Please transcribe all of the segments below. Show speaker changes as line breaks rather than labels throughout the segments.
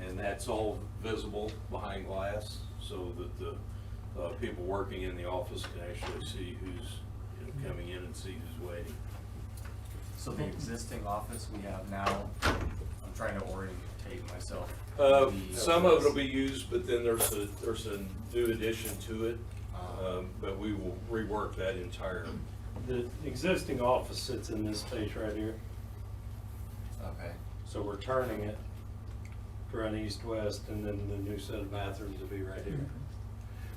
and that's all visible behind glass, so that the, uh, people working in the office can actually see who's, you know, coming in and see who's waiting.
So the existing office we have now, I'm trying to orientate myself.
Uh,
The-
some of it'll be used, but then there's a, there's a new addition to it,
Ah.
um, but we will rework that entire,
The existing office sits in this space right here,
uh,
Okay,
so we're turning it to run east-west, and then the new set of bathrooms will be right here.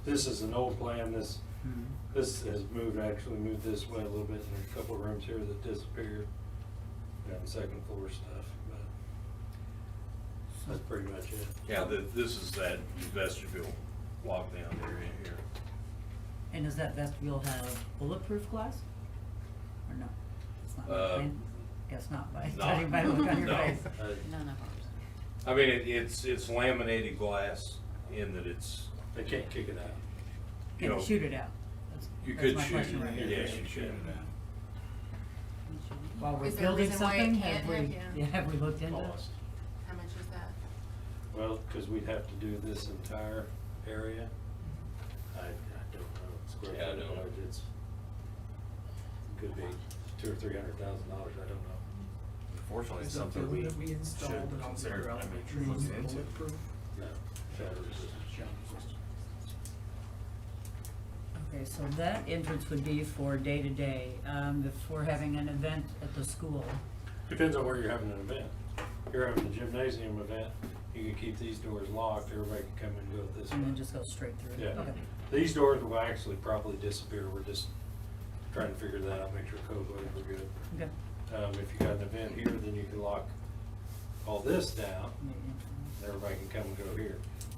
This is an old plan, this, this has moved, actually moved this way a little bit, and there's a couple of rooms here that disappeared. You know, the second floor stuff, but that's pretty much it.
yeah, th- this is that vestibule walk down area here.
And does that vestibule have bulletproof glass? Or no? It's not by
Uh,
plan? Guess not by
no.
judging by the look on your
No.
face.
Uh,
None of ours.
I mean, it- it's, it's laminated glass in that it's,
They can't kick it out.
you know.
Can shoot it out? That's-
You
that's
could
my
shoot
question
it,
right here.
yeah. you should.
While we're
Is there a
building
reason why it
something,
can't
have we,
have-
yeah,
yeah.
have we looked into it?
Lost.
How much is that?
Well, because we'd have to do this entire area. I, I don't know. Square
Yeah, I
footage
don't know.
wise, It's, could be two or three hundred thousand dollars, I don't know.
unfortunately, it's something we should consider, I mean, should look into.
No, shatter resistant.
Okay, so that entrance would be for day-to-day, um, if we're having an event at the school.
Depends on where you're having an event. If you're having a gymnasium event, you can keep these doors locked, everybody can come and go this way.
And then just go straight through?
Yeah.
Okay.
These doors will actually probably disappear, we're just trying to figure that out, make sure code wise we're good.
Okay.
Um, if you got an event here, then you can lock all this down, and everybody can come and go here,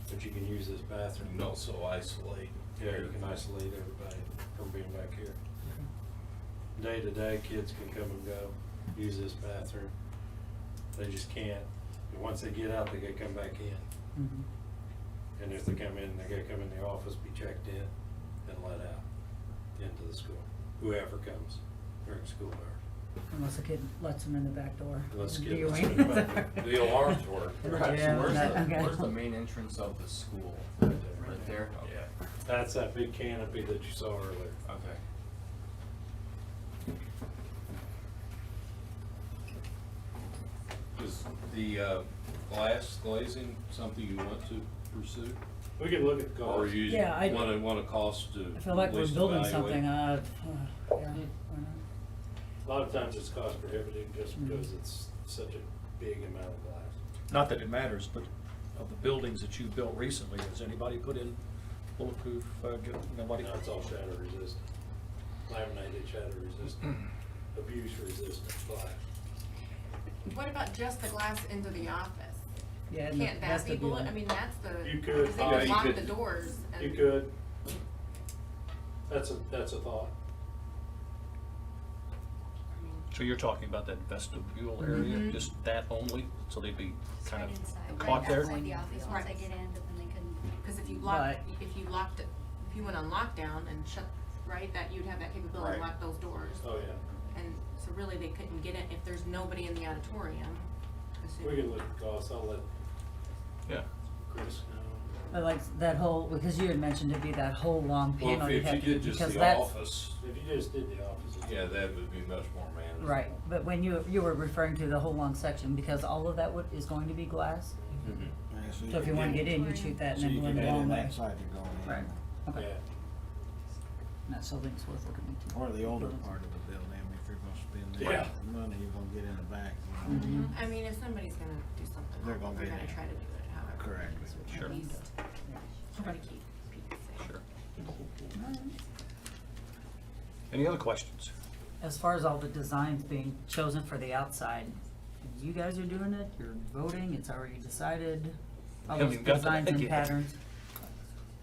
but you can use this bathroom.
and also isolate.
Yeah, you can isolate everybody from being back here. Day to day, kids can come and go, use this bathroom. They just can't, and once they get out, they gotta come back in.
Mhm.
And if they come in, they gotta come in the office, be checked in, and let out into the school, whoever comes during school hours.
Unless a kid lets them in the back door.
Unless a kid
Do you
lets
wait?
'em in the back door.
The alarms work.
Right, so
Yeah,
where's
that-
the,
okay.
where's the main entrance of the school?
Right there.
Right there? Okay.
Yeah.
That's that big canopy that you saw earlier.
Okay.
Is the uh, glass glazing something you want to pursue?
We can look at
Or
cars.
you
Yeah, I-
want to, want to cost to
I feel like
at
we're
least
building
evaluate?
something, uh, uh, yeah, why not?
A lot of times it's cost prohibitive just because it's such a big amount of glass.
not that it matters, but of the buildings that you've built recently, has anybody put in bulletproof, uh, gu- nobody?
Now it's all shatter resistant, laminated shatter resistant, abuse resistant glass.
What about just the glass into the office?
Yeah, and the
Can't that be
vestibule.
bullet, I mean, that's the.
You could,
'cause
yeah,
They
you
can lock
could.
the doors and.
You could. That's a, that's a thought.
I mean,
So you're talking about that vestibule area,
Mhm.
just that only, so they'd be kind
Right Mm-hmm. inside,
of
right
caught there?
outside the office, once I
Right.
get in, but then they couldn't.
Cause if you lock,
But-
if you locked it, if you went on lockdown and shut, right, that you'd have that capability to
Right.
lock those doors.
Oh, yeah.
And so really they couldn't get it if there's nobody in the auditorium. 'cause you-
We can look at costs. I'll let
Yeah,
Chris know.
I like that whole, because you had mentioned it'd be that whole long
Well,
panel
if-
you
if you
have to,
did
because
just
that's.
the office,
If you just did the opposite.
yeah, that would be much more manageable.
Right, but when you, you were referring to the whole long section, because all of that would, is going to be glass,
Mhm.
so if you wanna get in, you shoot that and then go in the long way.
side to go in.
Right. Okay,
Yeah.
and that building's worth looking into.
Or the older
Buildings.
part of the building, if you're gonna spend
Yeah.
the money, you're gonna get in the back. you know.
Mm-hmm.
Mhm. I mean, if somebody's gonna do something,
They're
they're
gonna
gonna
be there.
try to do it however. they
Correct.
can, so at
Sure.
least Try to keep people safe.
sure. Any other questions?
As far as all the designs being chosen for the outside, you guys are doing it, you're voting, it's already decided, all
Haven't
those
even got to
designs
that
and
yet.
patterns.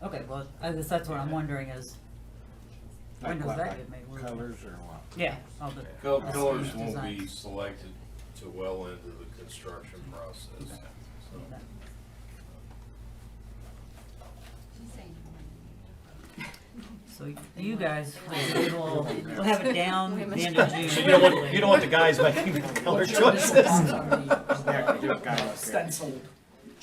Okay, well, I guess that's what I'm wondering is, when
Like
does
what,
that
like
get made? Where-
Colors or what?
yeah, all the.
Col-
That's
Colors
the
won't be
design.
selected to well into the construction process.
that- So you guys will will have it down the end of June.
You don't want, you don't want the guys making the color choices.
I'm sorry.
Yeah, 'cause you're kind of up here.
stenciled